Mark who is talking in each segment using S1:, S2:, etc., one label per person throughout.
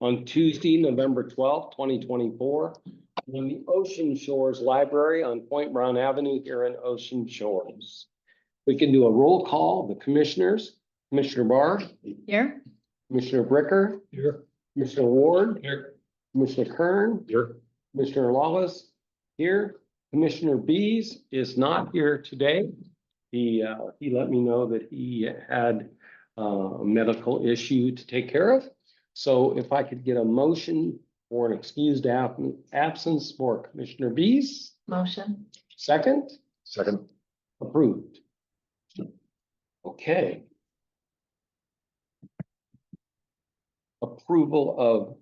S1: on Tuesday, November twelfth, twenty twenty-four, in the Ocean Shores Library on Point Brown Avenue here in Ocean Shores. We can do a roll call, the commissioners, Commissioner Barr,
S2: Here?
S1: Commissioner Bricker,
S3: Here.
S1: Commissioner Ward,
S3: Here.
S1: Commissioner Kern,
S3: Here.
S1: Commissioner Lawless here. Commissioner Bees is not here today. He, uh, he let me know that he had uh, a medical issue to take care of. So if I could get a motion for an excused ab- absence for Commissioner Bees,
S2: Motion?
S1: second,
S3: Second.
S1: approved. Okay. Approval of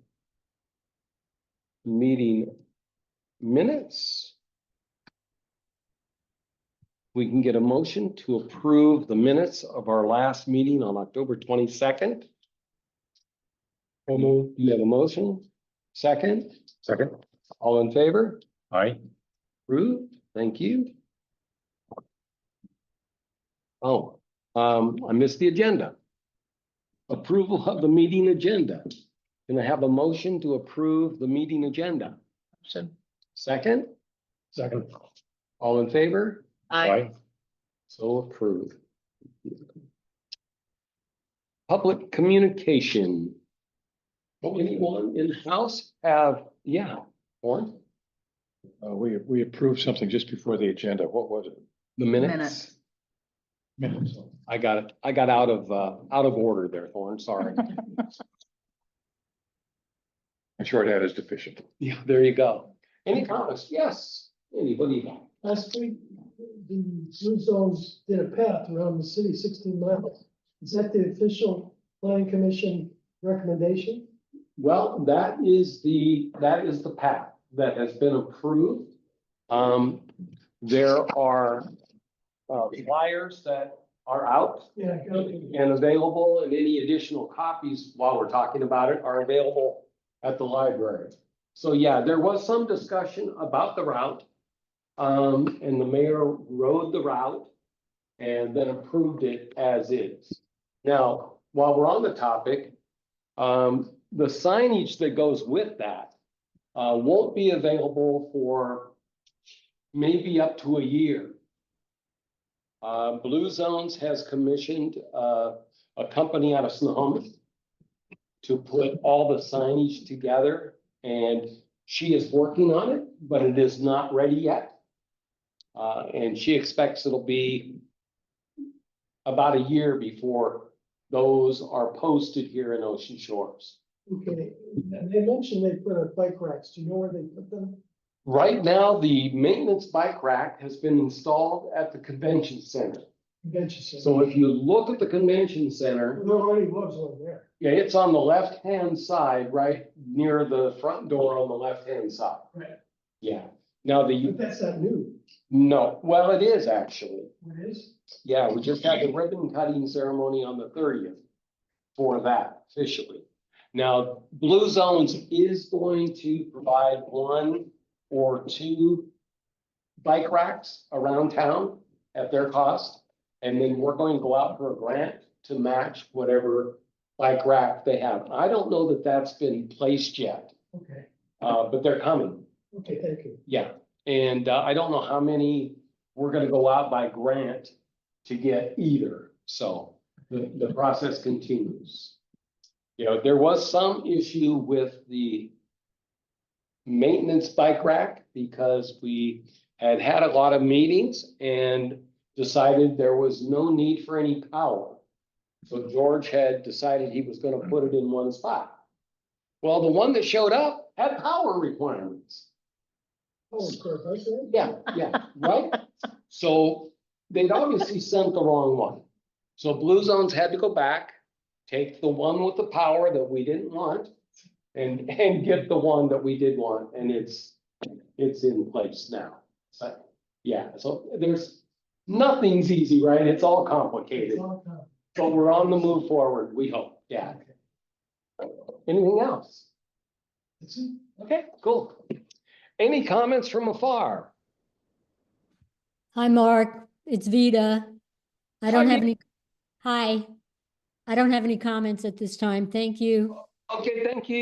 S1: meeting minutes. We can get a motion to approve the minutes of our last meeting on October twenty-second. Do you have a motion? Second,
S3: Second.
S1: all in favor?
S3: Aye.
S1: Approved, thank you. Oh, um, I missed the agenda. Approval of the meeting agenda. Can I have a motion to approve the meeting agenda?
S2: Motion.
S1: Second,
S3: Second.
S1: all in favor?
S2: Aye.
S1: So approved. Public communication. Anyone in-house have, yeah, Warren,
S3: Uh, we, we approved something just before the agenda. What was it?
S1: the minutes?
S2: Minutes.
S3: Minutes.
S1: I got it. I got out of, uh, out of order there, Thorne, sorry.
S3: I'm sure that is deficient.
S1: Yeah, there you go. Any comments? Yes. Anybody?
S4: Last week, the Blue Zones did a path around the city sixteen miles. Is that the official planning commission recommendation?
S1: Well, that is the, that is the path that has been approved. Um, there are uh, flyers that are out
S4: Yeah.
S1: and available, and any additional copies while we're talking about it are available at the library. So yeah, there was some discussion about the route. Um, and the mayor rode the route and then approved it as is. Now, while we're on the topic, um, the signage that goes with that uh, won't be available for maybe up to a year. Uh, Blue Zones has commissioned, uh, a company out of Snohomish to put all the signage together and she is working on it, but it is not ready yet. Uh, and she expects it'll be about a year before those are posted here in Ocean Shores.
S4: Okay, and they mentioned they put up bike racks. Do you know where they put them?
S1: Right now, the maintenance bike rack has been installed at the convention center.
S4: Convention center.
S1: So if you look at the convention center,
S4: There already was one there.
S1: Yeah, it's on the left-hand side, right near the front door on the left-hand side.
S4: Right.
S1: Yeah, now the,
S4: But that's not new.
S1: no, well, it is actually.
S4: It is?
S1: Yeah, we just had the ribbon cutting ceremony on the thirtieth for that officially. Now, Blue Zones is going to provide one or two bike racks around town at their cost. And then we're going to go out for a grant to match whatever bike rack they have. I don't know that that's been placed yet,
S4: Okay,
S1: uh, but they're coming.
S4: okay, thank you.
S1: Yeah, and uh, I don't know how many we're gonna go out by grant to get either, so the, the process continues. You know, there was some issue with the maintenance bike rack because we had had a lot of meetings and decided there was no need for any power. So George had decided he was gonna put it in one spot. Well, the one that showed up had power requirements.
S4: Oh, of course, I said.
S1: Yeah, yeah, right? So they'd obviously sent the wrong one. So Blue Zones had to go back, take the one with the power that we didn't want and, and get the one that we did want, and it's, it's in place now. So, yeah, so there's, nothing's easy, right? It's all complicated,
S4: It's all time.
S1: but we're on the move forward, we hope, yeah. Anything else?
S4: It's in-
S1: Okay, cool. Any comments from afar?
S5: Hi, Mark. It's Vida. I don't have any, hi. I don't have any comments at this time. Thank you.
S1: Okay, thank you.